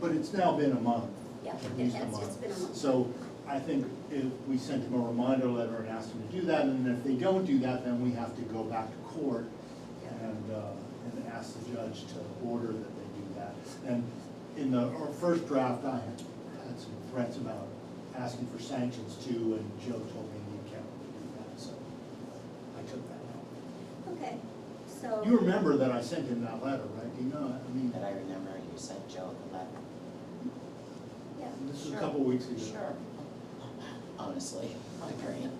But it's now been a month. Yeah, at yeah, least a it's- month. it's been a month. So I think if we sent them a reminder letter and asked them to do that, and if they don't do that, then we have to go back to court and, uh, and ask the judge to order that they do that. And in the, our first draft, I had, had some threats about asking for sanctions too, and Joe told me the accountant would do that, so I took that out. Okay, so. You remember that I sent him that letter, right? Do you know, I mean, But I remember you sent Joe the letter, Yeah. this was a Sure. couple weeks ago. sure. Honestly, my brain,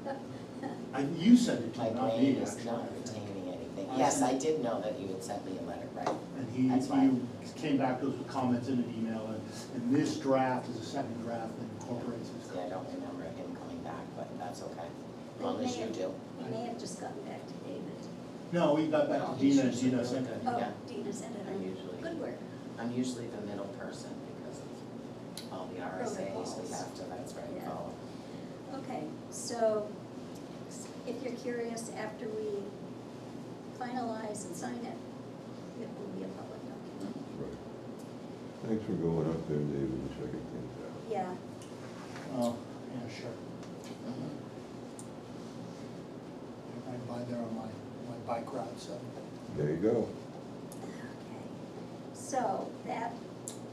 I, you sent it to my him, not brain me, is actually. not I think. retaining anything. I Yes, see. I did know that you had sent me a letter, right? And he, That's why. he came back to us with comments in an email, and, and this draft is a second draft that incorporates his. See, I don't remember him coming back, but that's okay, as But long it as may you have- do. We may have just gotten back to David. No, we got back No, to he Dina, and should- Dina sent it. Okay. Oh, Yeah. Dina sent it I on. usually- Good work. I'm usually the middle person because of all the RSAs we Protocols. have to, that's right, Yeah. follow. Okay, so if you're curious, after we finalize and sign it, it will be a public document. Right. Thanks for going up there, David, and checking things out. Yeah, Oh, yeah, sure. Mm-hmm. I ride by there on my, my bike ride, so. There you go. okay. So that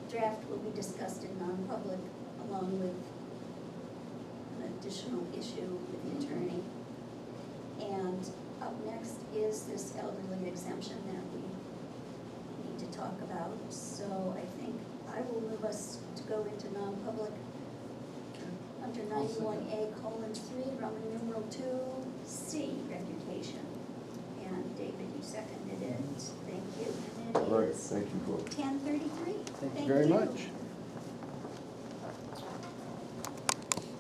draft will be discussed in non-public along with an additional issue with the attorney. And up next is this elderly exemption that we need to talk about. So I think I will move us to go into non-public under I'll second. ninety-one A colon three, Roman numeral two, C, reputation. And David, you seconded it, thank you. And it All right, is thank you, folks. ten thirty-three. Thank you very much.